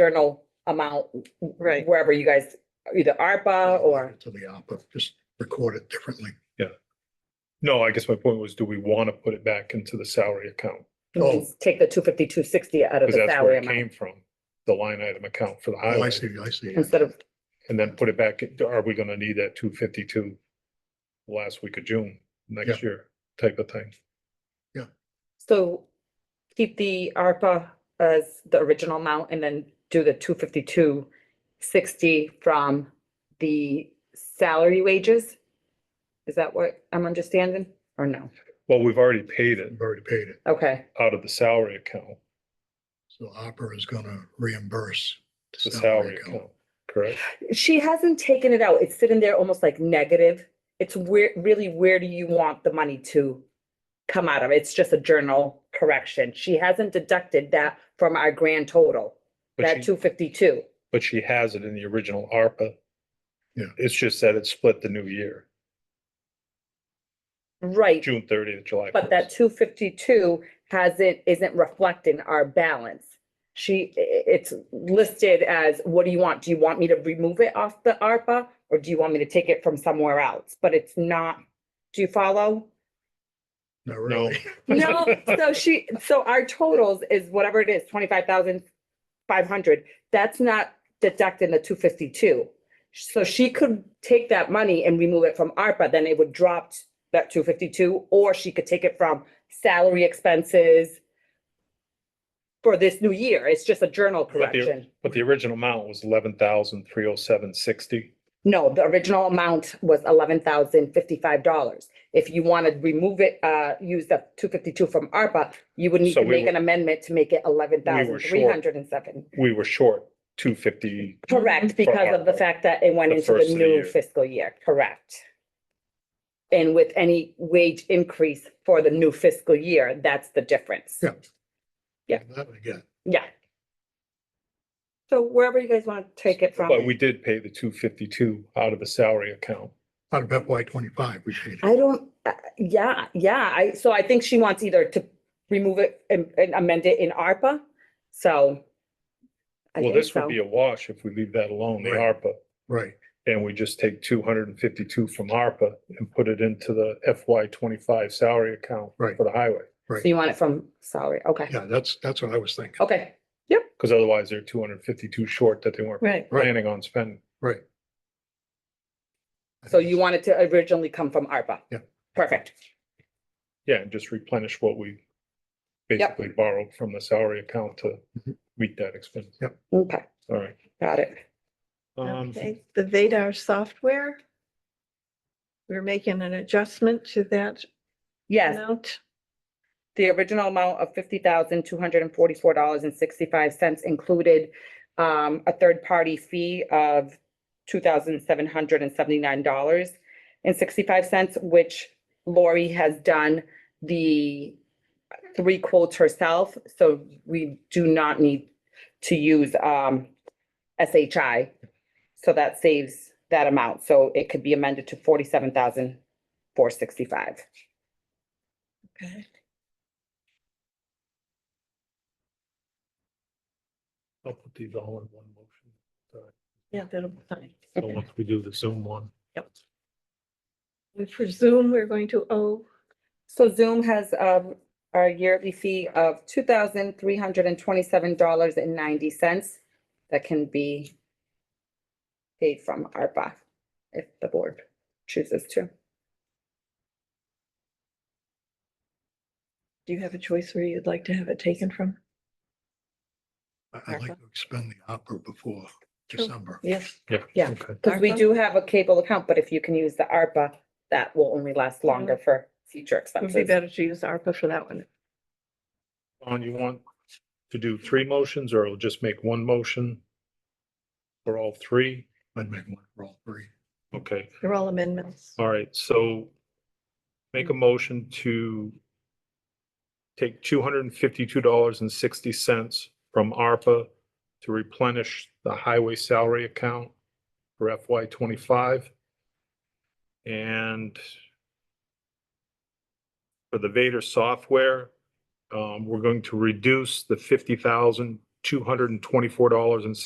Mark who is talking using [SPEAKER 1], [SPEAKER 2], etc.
[SPEAKER 1] journal amount
[SPEAKER 2] Right,
[SPEAKER 1] wherever you guys, either ARPA or,
[SPEAKER 3] To the opera, just record it differently.
[SPEAKER 4] No, I guess my point was, do we want to put it back into the salary account?
[SPEAKER 1] you mean, take the two fifty, two sixty out of
[SPEAKER 4] Oh. Because
[SPEAKER 1] the
[SPEAKER 4] that's where
[SPEAKER 1] salary
[SPEAKER 4] it came
[SPEAKER 1] amount.
[SPEAKER 4] from, the line item account for the
[SPEAKER 3] Oh, I
[SPEAKER 4] highway,
[SPEAKER 3] see, I see.
[SPEAKER 1] Instead of,
[SPEAKER 4] and then put it back, in- are we gonna need that two fifty-two? Last week of June, next year type of thing.
[SPEAKER 1] so keep the ARPA as the original amount and then do the two fifty, two sixty from the salary wages? Is that what I'm understanding or no?
[SPEAKER 4] Well, we've already paid it
[SPEAKER 3] We've already paid it.
[SPEAKER 1] Okay,
[SPEAKER 4] out of the salary account,
[SPEAKER 3] So opera is gonna reimburse.
[SPEAKER 4] the salary account, correct?
[SPEAKER 1] she hasn't taken it out. It's sitting there almost like negative. It's where, really, where do you want the money to come out of? It's just a journal correction. She hasn't deducted that from our grand total,
[SPEAKER 4] But
[SPEAKER 1] that
[SPEAKER 4] she,
[SPEAKER 1] two fifty-two.
[SPEAKER 4] but she has it in the original ARPA.
[SPEAKER 3] Yeah.
[SPEAKER 4] It's just that it's split the new year,
[SPEAKER 1] Right,
[SPEAKER 4] June thirtieth, July.
[SPEAKER 1] but that
[SPEAKER 4] 1st.
[SPEAKER 1] two fifty-two hasn't, isn't reflecting our balance. She, i- i- it's listed as, what do you want? Do you want me to remove it off the ARPA? Or do you want me to take it from somewhere else? But it's not, do you follow?
[SPEAKER 3] Not really.
[SPEAKER 1] No, so she, so our totals is whatever it is, twenty-five thousand five hundred, that's not deducting the two fifty-two. So she could take that money and remove it from ARPA, then it would drop t- that two fifty-two, or she could take it from salary expenses for this new year, it's just a journal
[SPEAKER 4] the-
[SPEAKER 1] correction.
[SPEAKER 4] But the original amount was eleven thousand three oh seven sixty.
[SPEAKER 1] No, the original amount was eleven thousand fifty-five dollars. If you want to remove it, uh, use the two fifty-two from ARPA, you would need
[SPEAKER 4] So
[SPEAKER 1] to
[SPEAKER 4] we
[SPEAKER 1] make
[SPEAKER 4] were-
[SPEAKER 1] an amendment to make it eleven thousand
[SPEAKER 4] were
[SPEAKER 1] three hundred and seven.
[SPEAKER 4] We were short two fifty.
[SPEAKER 1] Correct, because of the
[SPEAKER 4] ARPA,
[SPEAKER 1] fact that it went
[SPEAKER 4] the
[SPEAKER 1] into
[SPEAKER 4] first
[SPEAKER 1] the
[SPEAKER 4] of the
[SPEAKER 1] new
[SPEAKER 4] year.
[SPEAKER 1] fiscal year, correct. And with any wage increase for the new fiscal year, that's the difference.
[SPEAKER 3] Yeah.
[SPEAKER 1] Yeah.
[SPEAKER 3] That I get.
[SPEAKER 1] Yeah. So wherever you guys want to take it from.
[SPEAKER 4] But we did pay the two fifty-two out of the salary account.
[SPEAKER 3] Out of FY twenty-five, we paid
[SPEAKER 1] I
[SPEAKER 3] it.
[SPEAKER 1] don't, uh, yeah, yeah, I, so I think she wants either to remove it and and amend it in ARPA, so. I
[SPEAKER 4] Well,
[SPEAKER 1] think
[SPEAKER 4] this would
[SPEAKER 1] so.
[SPEAKER 4] be a wash if we leave that alone, the
[SPEAKER 3] Right.
[SPEAKER 4] ARPA,
[SPEAKER 3] Right.
[SPEAKER 4] and we just take two hundred and fifty-two from ARPA and put it into the FY twenty-five salary account for
[SPEAKER 3] Right.
[SPEAKER 4] the highway.
[SPEAKER 1] So you want it from salary, okay,
[SPEAKER 3] Yeah, that's, that's what I was thinking.
[SPEAKER 1] okay,
[SPEAKER 4] Because otherwise they're two hundred and fifty-two short that they weren't
[SPEAKER 2] right.
[SPEAKER 3] Right.
[SPEAKER 4] planning on spending.
[SPEAKER 3] Right.
[SPEAKER 1] so you want it to originally come from ARPA?
[SPEAKER 3] Yeah.
[SPEAKER 1] Perfect,
[SPEAKER 4] Yeah, and just replenish what we basically borrowed from the salary account to
[SPEAKER 3] Mhm.
[SPEAKER 4] meet that expense.
[SPEAKER 1] okay,
[SPEAKER 4] All right.
[SPEAKER 1] got it,
[SPEAKER 4] Um,
[SPEAKER 2] Okay, the Vadar software. We're making an adjustment to that
[SPEAKER 1] yes,
[SPEAKER 2] amount.
[SPEAKER 1] the original amount of fifty thousand, two hundred and forty-four dollars and sixty-five cents included um, a third-party fee of two thousand, seven hundred and seventy-nine dollars and sixty-five cents, which Lori has done the three quotes herself, so we do not need to use, um, SHI. So that saves that amount, so it could be amended to forty-seven thousand, four sixty-five.
[SPEAKER 2] Okay.
[SPEAKER 4] I'll put these all in one motion.
[SPEAKER 2] Yeah, that'll be fine.
[SPEAKER 4] So once we do the Zoom one.
[SPEAKER 2] We presume we're going to oh, owe,
[SPEAKER 1] So Zoom has um our yearly fee of two thousand three hundred and twenty-seven dollars and ninety cents that can be paid from ARPA if the board chooses to.
[SPEAKER 2] do you have a choice where you'd like to have it taken from?
[SPEAKER 3] I- I'd like to expend the opera before
[SPEAKER 2] Sure.
[SPEAKER 3] December.
[SPEAKER 2] Yes.
[SPEAKER 1] Yeah.
[SPEAKER 4] Okay.
[SPEAKER 1] Because we
[SPEAKER 2] ARPA?
[SPEAKER 1] do have a cable account, but if you can use the ARPA, that will only last longer for future
[SPEAKER 2] It would be
[SPEAKER 1] expenses.
[SPEAKER 2] better to use ARPA for that one.
[SPEAKER 4] Dawn, you want to do three motions or just make one motion? For all three?
[SPEAKER 3] I'd make one for all three.
[SPEAKER 4] Okay,
[SPEAKER 2] They're all amendments.
[SPEAKER 4] all right, so make a motion to take two hundred and fifty-two dollars and sixty cents from ARPA to replenish the highway salary account for FY twenty-five. And for the Vader software, um, we're going to reduce the fifty thousand two hundred and twenty-four dollars and